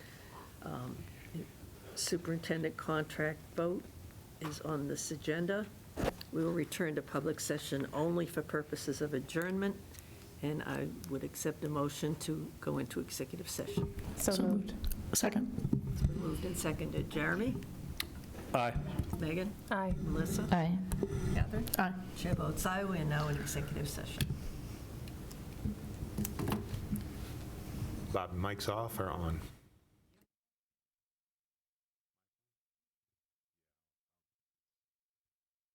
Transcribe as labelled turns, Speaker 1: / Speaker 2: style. Speaker 1: Um, Superintendent contract vote is on this agenda. We will return to public session only for purposes of adjournment, and I would accept a motion to go into executive session.
Speaker 2: So moved.
Speaker 3: Second.
Speaker 1: It's been moved and seconded. Jeremy?
Speaker 3: Aye.
Speaker 1: Megan?
Speaker 2: Aye.
Speaker 1: Melissa?
Speaker 4: Aye.
Speaker 1: Catherine?
Speaker 3: Aye.
Speaker 1: Chair votes aye. We are now in executive session.
Speaker 5: Bob, mic's off or on?